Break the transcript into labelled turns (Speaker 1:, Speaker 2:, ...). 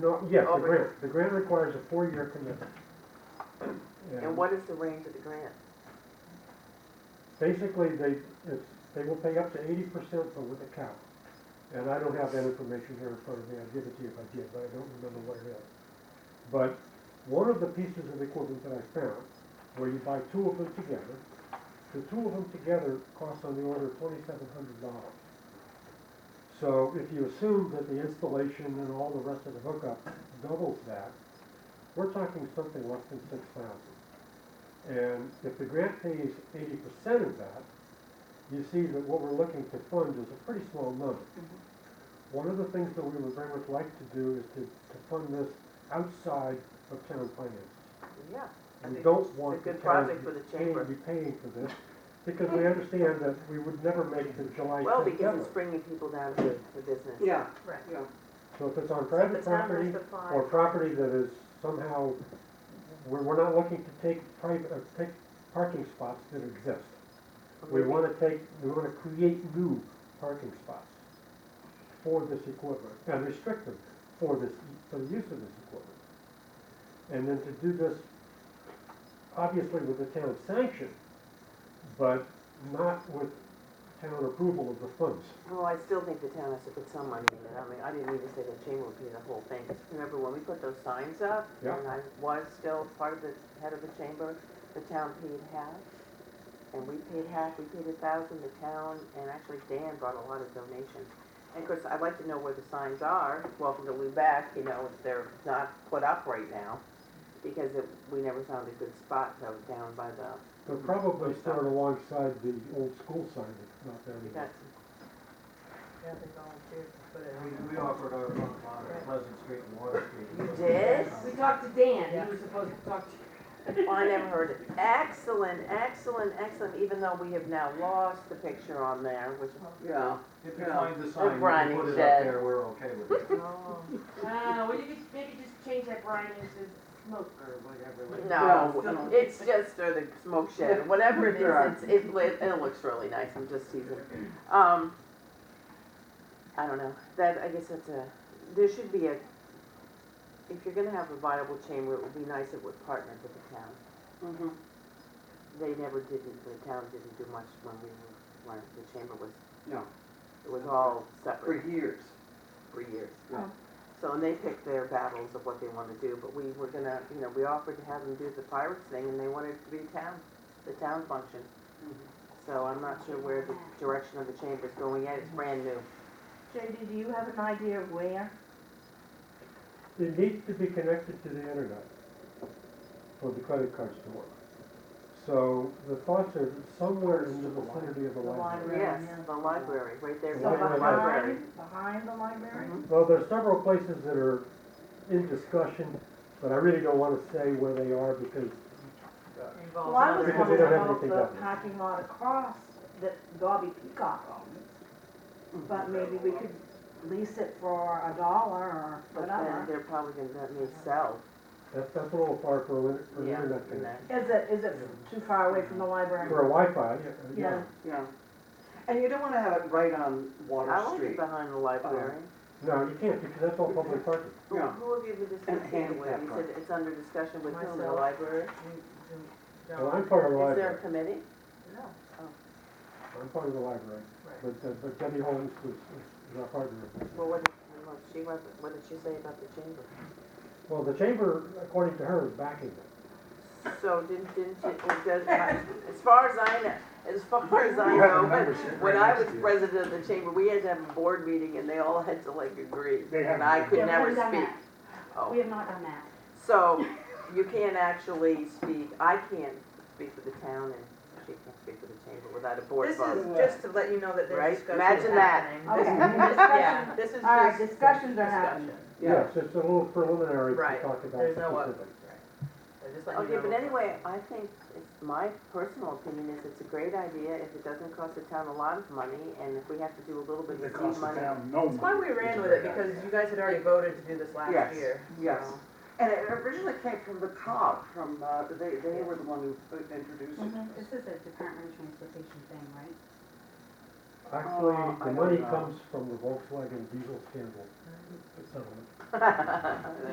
Speaker 1: No, yes, the
Speaker 2: Over
Speaker 1: grant, the grant requires a four-year commitment.
Speaker 2: And what is the range of the grant?
Speaker 1: Basically, they, it's, they will pay up to eighty percent, but with a cap. And I don't have that information here in front of me, I'd give it to you if I did, but I don't remember what it is. But one of the pieces of equipment that I found, where you buy two of them together, the two of them together cost on the order of twenty-seven hundred dollars. So if you assume that the installation and all the rest of the hookup doubles that, we're talking something less than six thousand. And if the grant pays eighty percent of that, you see that what we're looking to fund is a pretty small number. One of the things that we would very much like to do is to, to fund this outside of town finances.
Speaker 2: Yeah, I
Speaker 1: We
Speaker 2: think
Speaker 1: don't want
Speaker 2: a
Speaker 1: the
Speaker 2: good
Speaker 1: town
Speaker 2: project for
Speaker 1: to
Speaker 2: the
Speaker 1: pay-
Speaker 2: chamber.
Speaker 1: be paying for this, because we understand that we would never make the July
Speaker 2: well,
Speaker 1: tenth
Speaker 2: because it's
Speaker 1: deadline.
Speaker 2: bringing people down to the business.
Speaker 3: Yeah,
Speaker 4: Right.
Speaker 3: yeah.
Speaker 1: So if it's on
Speaker 4: So the
Speaker 1: private
Speaker 4: town
Speaker 1: property,
Speaker 4: must apply.
Speaker 1: or property that is somehow, we're, we're not looking to take private, uh, take parking spots that exist. We want to take, we want to create new parking spots for this equipment and restrict them for this, for the use of this equipment. And then to do this, obviously with the town sanction, but not with town approval of the funds.
Speaker 2: Well, I still think the town has to put some money in it. I mean, I didn't even say the chamber would pay the whole thing. 'Cause Remember when we put those signs up?
Speaker 1: Yeah.
Speaker 2: And I was still part of the, head of the chamber, the town paid half. And we paid half, we paid a thousand, the town, and actually Dan brought a lot of donations. And of course, I'd like to know where the signs are, welcome to Lubec, you know, if they're not put up right now. Because it- we never found a good spot, though, down by the,
Speaker 1: They're probably started alongside the old school sign that's not there anymore.
Speaker 2: that's,
Speaker 4: Yeah, they volunteered to put it
Speaker 5: We,
Speaker 4: on.
Speaker 5: we offered our front lawn at Pleasant Street and Water Street.
Speaker 2: You did?
Speaker 3: We talked to Dan,
Speaker 4: Yeah.
Speaker 3: he was supposed to talk to you.
Speaker 2: Well, Oh, I never heard it. Excellent, excellent, excellent, even though we have now lost the picture on there, which,
Speaker 3: Yeah.
Speaker 5: If you find the sign,
Speaker 2: Brian
Speaker 5: we put it up
Speaker 2: said.
Speaker 5: there, we're okay with it.
Speaker 4: Oh,
Speaker 3: Uh, well, you could maybe just change that brine into smoke or whatever. like-
Speaker 2: no, it's just, or the smoke shed, whatever it is, it's, it, li- it looks really nice, I'm just teasing. Um, I don't know, that, I guess that's a, there should be a, if you're gonna have a viable chamber, it would be nice if it would partner with the town.
Speaker 3: Mhm.
Speaker 2: They never didn't, the town didn't do much when we, were- when the chamber was,
Speaker 3: No,
Speaker 2: it was all
Speaker 3: for
Speaker 2: separate.
Speaker 3: years.
Speaker 2: for years.
Speaker 3: Yeah.
Speaker 2: So, and they picked their battles of what they want to do, but we were gonna, you know, we offered to have them do the pirates thing, and they wanted it to be town, the town function. So I'm not sure where the direction of the chamber's going yet, it's brand new.
Speaker 4: JD, do you have an idea of where?
Speaker 1: It needs to be connected to the internet for the credit cards to work. So the thoughts are somewhere in the vicinity of the
Speaker 4: The
Speaker 1: library.
Speaker 4: library.
Speaker 2: Yes,
Speaker 4: yeah.
Speaker 2: the library, right there,
Speaker 1: The
Speaker 2: the library.
Speaker 4: Behind, behind the library?
Speaker 2: Mhm.
Speaker 1: Well, there's several places that are in discussion, but I really don't want to say where they are because
Speaker 4: Well, I was
Speaker 1: Because they
Speaker 4: wondering
Speaker 1: don't have
Speaker 4: about
Speaker 1: anything
Speaker 4: the
Speaker 1: done.
Speaker 4: parking lot across that Bobby Peacock owns, but maybe we could lease it for a dollar or
Speaker 2: But then
Speaker 4: whatever.
Speaker 2: they're probably gonna, that may sell,
Speaker 1: that's, that's a little far for an for an
Speaker 2: yeah,
Speaker 1: internet
Speaker 2: and
Speaker 1: connection.
Speaker 2: then,
Speaker 4: Is it, is it too far away from the library?
Speaker 1: For a Wi-Fi, yeah, yeah.
Speaker 4: Yeah.
Speaker 3: Yeah. And you don't wanna have it right on
Speaker 2: I
Speaker 3: Water
Speaker 2: like it
Speaker 3: Street.
Speaker 2: behind the library.
Speaker 1: No, you can't because that's all public parking.
Speaker 2: Who
Speaker 3: Yeah.
Speaker 2: who have you been discussing it with?
Speaker 3: handicap
Speaker 2: You said it's under discussion with whom, the
Speaker 4: Myself.
Speaker 2: library?
Speaker 1: Well, I'm part of the
Speaker 2: Is there
Speaker 1: library,
Speaker 2: a committee?
Speaker 4: No.
Speaker 1: I'm part of the library, but, uh, but Debbie Holmes is, is our partner.
Speaker 2: Well, what, did- well, she was, what did she say about the chamber?
Speaker 1: Well, the chamber, according to her, is backing it.
Speaker 2: So didn't, didn't, she- it does, as far as I know, as far as I
Speaker 5: You have a
Speaker 2: know,
Speaker 5: membership
Speaker 2: when
Speaker 5: right
Speaker 2: I
Speaker 5: next
Speaker 2: was
Speaker 5: to you.
Speaker 2: president of the chamber, we had to have a board meeting and they all had to like agree.
Speaker 5: They
Speaker 2: And
Speaker 5: haven't
Speaker 2: I
Speaker 5: done
Speaker 2: could
Speaker 6: that. Yeah,
Speaker 2: never
Speaker 6: we haven't done We
Speaker 2: speak. Oh,
Speaker 6: have not done that.
Speaker 2: so you can't actually speak, I can't speak for the town and she can't speak for the chamber without a board
Speaker 7: This is
Speaker 2: vote.
Speaker 7: just to let you know that
Speaker 2: Right?
Speaker 7: there's discussion
Speaker 2: Imagine that.
Speaker 7: happening.
Speaker 4: Okay,
Speaker 7: Yeah,
Speaker 4: discussion,
Speaker 7: this is
Speaker 4: all right,
Speaker 7: just,
Speaker 4: discussions are happening.
Speaker 2: Discussion.
Speaker 1: Yes, it's a little preliminary to
Speaker 7: Right.
Speaker 1: talk about
Speaker 7: There's no other-
Speaker 1: specifics.
Speaker 7: just let
Speaker 2: Okay,
Speaker 7: you know.
Speaker 2: but anyway, I think, it's- my personal opinion is it's a great idea if it doesn't cost the town a lot of money and if we have to do a little bit of seed money.
Speaker 7: That's why we ran with it, because you guys had already voted to do this
Speaker 3: Yes,
Speaker 7: last year.
Speaker 3: yes.
Speaker 7: so.
Speaker 3: And it originally came from the cop, from, uh, they, they were the one who introduced it.
Speaker 6: This is a Department of Transportation thing, right?
Speaker 1: Actually,
Speaker 2: Uh, I
Speaker 1: the
Speaker 2: don't
Speaker 7: Oh,
Speaker 1: money
Speaker 2: know.
Speaker 1: comes from the Volkswagen diesel scandal settlement.
Speaker 2: That's